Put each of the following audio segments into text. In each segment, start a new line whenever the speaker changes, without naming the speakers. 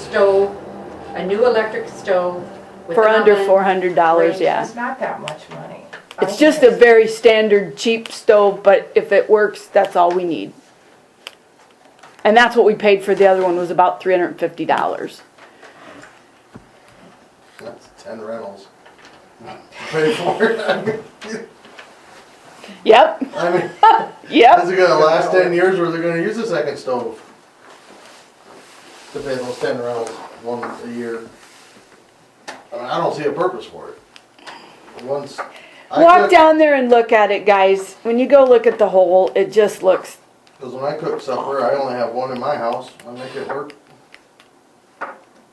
stove, a new electric stove. with
For
an
under
oven.
four hundred dollars,
range.
yeah.
It's not that much money. I
It's
think
just a very standard cheap stove, but if it works, that's all we need. And that's what we paid for the other one, was about three hundred and fifty dollars.
That's ten rentals. Pay for it.
Yep,
I mean,
yep,
how's it gonna last ten years where they're gonna use the second stove? To pay those ten rentals, one a year. I mean, I don't see a purpose for it. Once. I
walk
cook-
down there and look at it, guys. When you go look at the hole, it just looks,
Cause when I cook supper, I only have one in my house, I make it work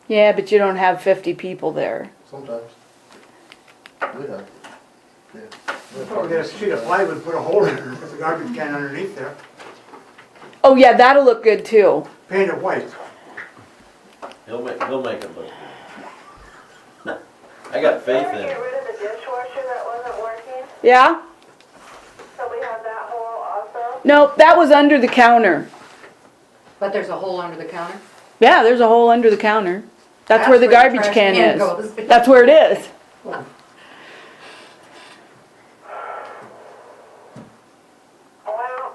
yeah, but you don't have fifty people there.
sometimes. We have. yeah, we have
Probably get a sheet of plywood, put a hole in it, put the garbage can underneath there,
Oh, yeah, that'll look good too.
paint it white.
He'll make, he'll make it look good. I got faith
Can
in
we get
him.
rid of the dishwasher that wasn't working?
Yeah?
So we have that hole also?
Nope, that was under the counter.
But there's a hole under the counter.
Yeah, there's a hole under the counter. That's where the garbage
trash
can is.
goes.
That's where it is.
Well,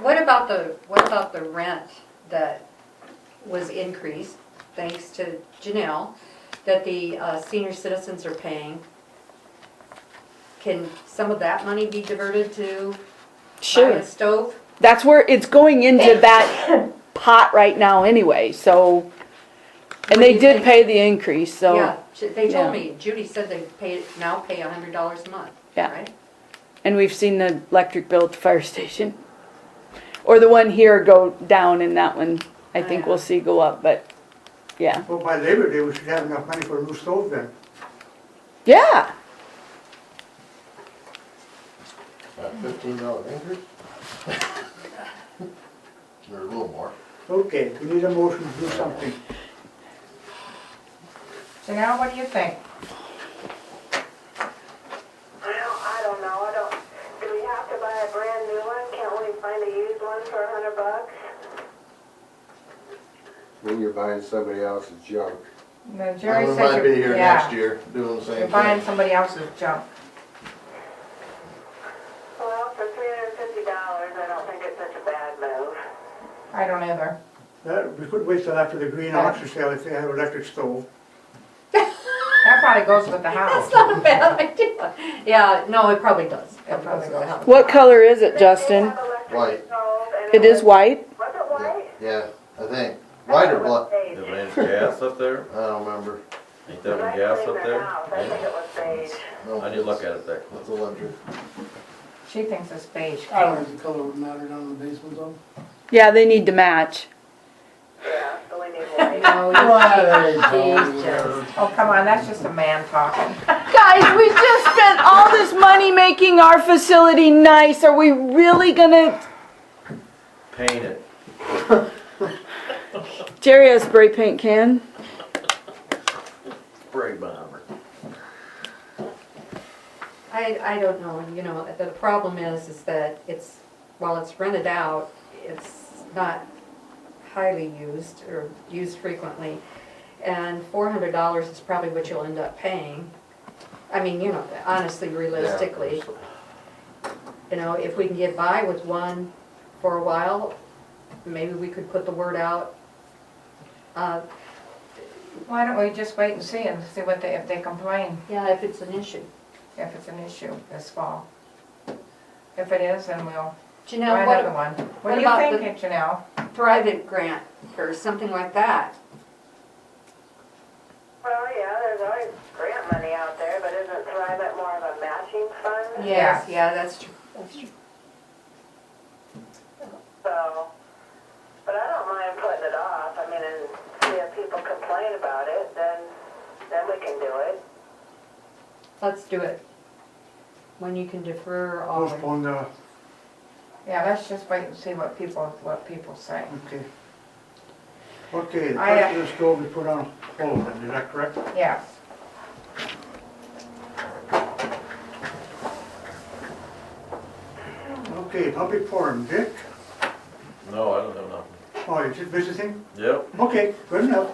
What about the, what about the rent that was increased, thanks to Janelle, that the uh, senior citizens are paying? Can some of that money be diverted to buy
Sure.
a stove?
That's where it's going into that pot right now anyway, so. And they
What do you
did
think?
pay the increase,
Yeah,
so,
she- they
yeah.
told me, Judy said they pay, now pay a hundred dollars a month,
Yeah.
right?
and we've seen the electric bill at the fire station. Or the one here go down and that one, I think we'll see go up, but, yeah.
Well, by Labor Day, we should have enough money for a new stove then.
Yeah,
About fifteen dollar increase? Or a little more.
Okay, we need a motion to do something.
So now what do you think?
well, I don't know, I don't, do we have to buy a brand new one? Can't we find a used one for a hundred bucks?
Then you're buying somebody else's junk.
No, Jerry
We
said
might be
you're,
here next
yeah,
year doing the
you're
same
buying
thing.
somebody else's junk.
Well, for three hundred and fifty dollars, I don't think it's such a bad move.
I don't either.
That, we could wait till after the green auction sale if they have electric stove.
That probably goes with the house.
That's not a bad idea. Yeah, no, it probably does.
It probably does.
what color is it,
They did
Justin?
have electric
White.
stove and
It is
was-
white?
Was it white?
Yeah, I think. White or black?
Beige.
Did they have gas up there?
I don't remember.
Ain't
When
that
I
a gas
cleaned
up
their house, I think
there?
it was beige.
No,
I didn't look
it's-
at it that close.
It's a luxury.
She thinks it's beige.
I don't think the color would matter down in the basement though.
Yeah, they need to match.
Yeah, so we need white.
No, you-
Right.
Oh, come on, that's just a man talking.
Guys, we just spent all this money making our facility nice. Are we really gonna?
Paint it.
Jerry has spray paint can.
Spray bomber.
I, I don't know, you know, the problem is, is that it's, while it's rented out, it's not highly used or used frequently. And four hundred dollars is probably what you'll end up paying. I mean, you know, honestly, realistically, you know, if we can get by with one for a while, maybe we could put the word out. Uh,
Why don't we just wait and see and see what they, if they complain,
yeah, if it's an issue.
if it's an issue this fall? If it is, then we'll buy
Janelle, what,
another one.
what
What do
about the-
you think, Janelle?
Thrivent grant or something like that.
Well, yeah, there's always grant money out there, but isn't Thrivent more of a matching fund?
Yes, yeah, that's true. That's true.
So, but I don't mind putting it off, I mean, and see if people complain about it, then, then we can do it.
Let's do it. When you can defer always.
Postpone the,
Yeah, let's just wait and see what people, what people say.
okay. Okay, the
I,
price
uh,
of the stove we put on hold then, is that correct?
Yes.
Okay, public forum, Dick?
No, I don't have nothing.
Oh, you just visiting?
Yep.
Okay, good enough.